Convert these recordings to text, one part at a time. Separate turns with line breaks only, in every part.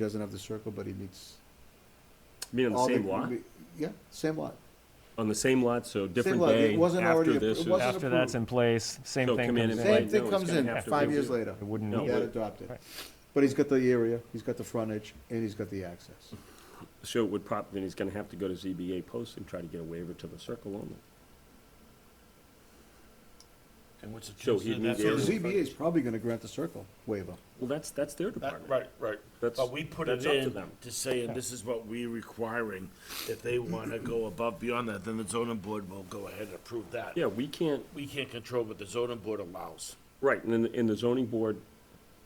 He doesn't have the circle, but he meets.
mean, on the
all
same lot,
Yeah, same lot.
on the same lot, so different
lot, it
day
wasn't already
after
appro-
this
it
is.
wasn't-
After that's
approved.
in place, same
So
thing
come in
comes
and
in.
like,
Same
no,
thing
it's
comes
gonna
in
have to
five
be-
years later.
It wouldn't.
No,
He got
but-
adopted.
Right.
But he's got the area, he's got the frontage, and he's got the access.
So it would prob, then he's gonna have to go to ZBA post and try to get a waiver to the circle only.
And what's the
So
truth?
he'd need
That's
So
Yeah.
what-
the ZBA is probably gonna grant the circle waiver.
Well, that's, that's their
That-
department.
Right, right.
That's-
But we put
that's
it
up to
in
them.
to say, and this is what we're requiring, if they want to go above beyond that, then the zoning board will go ahead and approve that.
Yeah, we can't,
We can't control what the zoning board allows.
right, and then, and the zoning board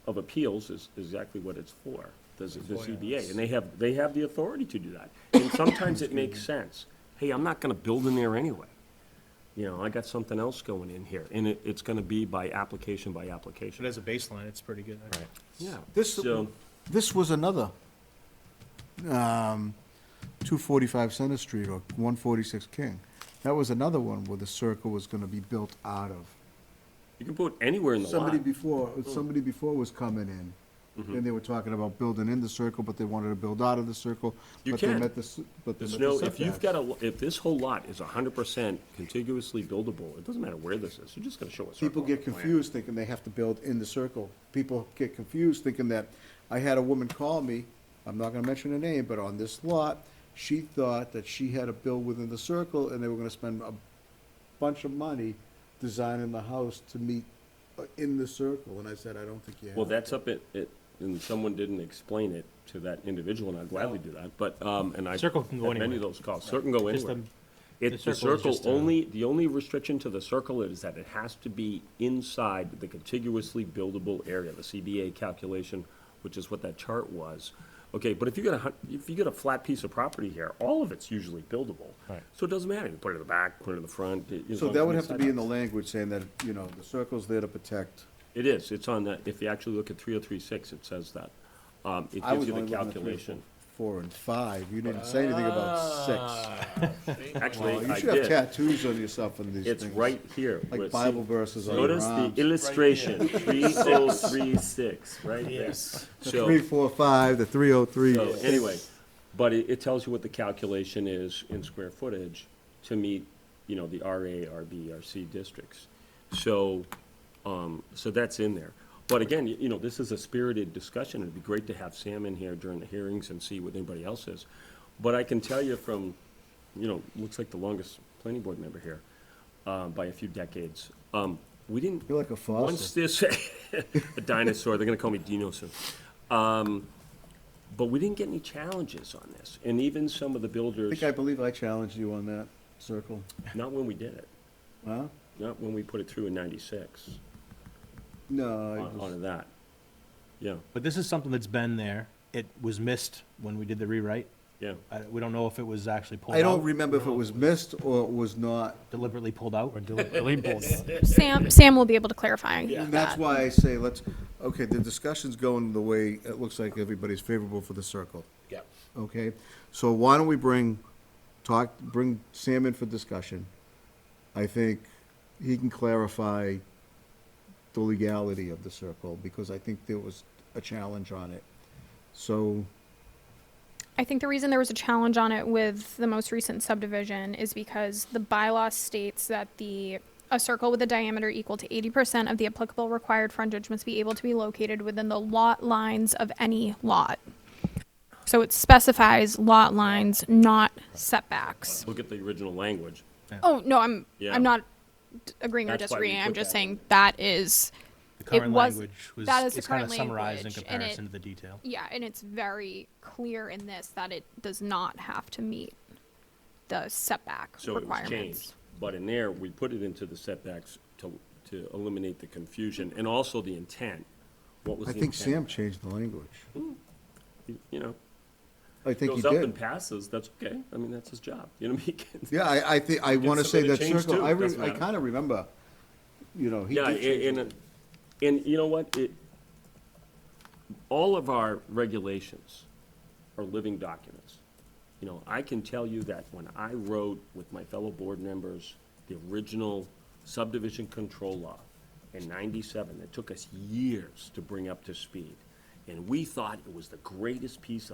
of appeals is is exactly what it's for, the, z- the ZBA, and they have, they have the authority to do that. And sometimes it makes sense, hey, I'm not gonna build in there anyway. You know, I got something else going in here, and it, it's gonna be by application by
But
application.
as a baseline, it's pretty good. actually.
Yeah.
This,
So,
this was another, um, two forty-five Center Street or one forty-six King. That was another one where the circle was gonna be built out of.
you can put anywhere in the lot. Mm.
Somebody
Mm-hmm.
before, somebody before was coming in, and they were talking about building in the circle, but they wanted to build out of the circle.
You
but they
can.
met the s- But they
There's
met
no,
the
if you've
setbacks.
got a, if this whole lot is hundred percent contiguously buildable, it doesn't matter where this is, you're just gonna show a circle.
People
on
get
the plan.
confused thinking they have to build in the circle. People get confused thinking that, I had a woman call me, I'm not gonna mention her name, but on this lot, she thought that she had to build within the circle, and they were gonna spend a bunch of money designing the house to meet uh, in the circle, and I said, I don't think you have.
Well, that's up at, it, and someone didn't explain it to that individual, and I'd gladly do that, but, um, and I.
Circle can go
Many of
anywhere.
those calls, circle can go
Just um,
anywhere.
the
It, the
circle is
circle
just uh, a-
only, the only restriction to the circle is that it has to be inside the contiguously buildable area, the CBA calculation, which is what that chart was. Okay, but if you got a, hun- if you got a flat piece of property here, all of it's usually buildable.
Right.
So it doesn't matter, you can put it in the back, put it in the front. it- as
So
long as
that would
it's
have to be in the
inside.
language saying that, you know, the circle's there to protect.
It is, it's on that, if you actually look at three oh three six, it says that. Um, it
I
gives
was
you the
only looking at three oh or
calculation.
Four and five, you didn't say anything about six.
six.
Well,
Actually,
You
Ah. I
should have
did.
tattoos on yourself on these things.
It's right here.
Like
where it
Bible
says-
verses on your
Notice the
arms.
illustration, three oh three six, right there.
Yes.
So-
Three, four, five, the three oh three.
So anyway, but it, it tells you what the calculation is in square footage to meet, you know, the RA, RB, RC districts. So, um, so that's in there. But again, you you know, this is a spirited discussion. It'd be great to have Sam in here during the hearings and see what anybody else is. But I can tell you from, you know, looks like the longest planning board member here, um, by a few decades. Um, we didn't.
You're like a
Once
fossil.
this, a dinosaur, they're gonna call me Dino soon. Um, But we didn't get any challenges on this, and even some of the
I
builders,
think I believe I challenged you on that circle,
not when we did it,
huh?
not when we put it through in ninety-six,
No,
on,
it was,
on that. Yeah,
But this is something that's been there. It was missed when we did the rewrite.
yeah.
I, we don't know if it was actually pulled out.
I don't remember if it was missed or it was not.
Deliberately pulled out.
Or deliberately pulled out.
Sam, Sam will be able to clarify
And that's
that.
why I say let's, okay, the discussion's going the way it looks like everybody's favorable for the circle.
Yeah.
Okay, so why don't we bring, talk, bring Sam in for discussion? I think he can clarify the legality of the circle, because I think there was a challenge on it. So,
I think the reason there was a challenge on it with the most recent subdivision is because the bylaw states that the, a circle with a diameter equal to eighty percent of the applicable required frontage must be able to be located within the lot lines of any lot. So it specifies lot lines, not setbacks.
Look at the original language.
Oh, no, I'm,
Yeah.
I'm not d- agreeing or
That's why we
disagreeing. I'm
put
just
that in.
saying that is,
The current
was-
language was,
that is the
it's kind of
current
summarized in
language, and
comparison
it-
to the detail.
Yeah, and it's very clear in this that it does not have to meet the setback
So it was changed,
requirements.
but in there, we put it into the setbacks to, to eliminate the confusion and also the intent. What was
I
the
think Sam
intent?
changed the language.
You- You know,
I think he
goes up
did.
and passes, that's okay, I mean, that's his job, you know, he can.
Yeah, I, I think, I wanna say
somebody
that
to change
circle,
too,
I, re-
doesn't
I
matter.
kinda remember, you know, he
Yeah,
did change
and, and, and you know what, it, all of our regulations are living documents. You know, I can tell you that when I wrote with my fellow board members, the original subdivision control law in ninety-seven, it took us years to bring up to speed. And we thought it was the greatest piece of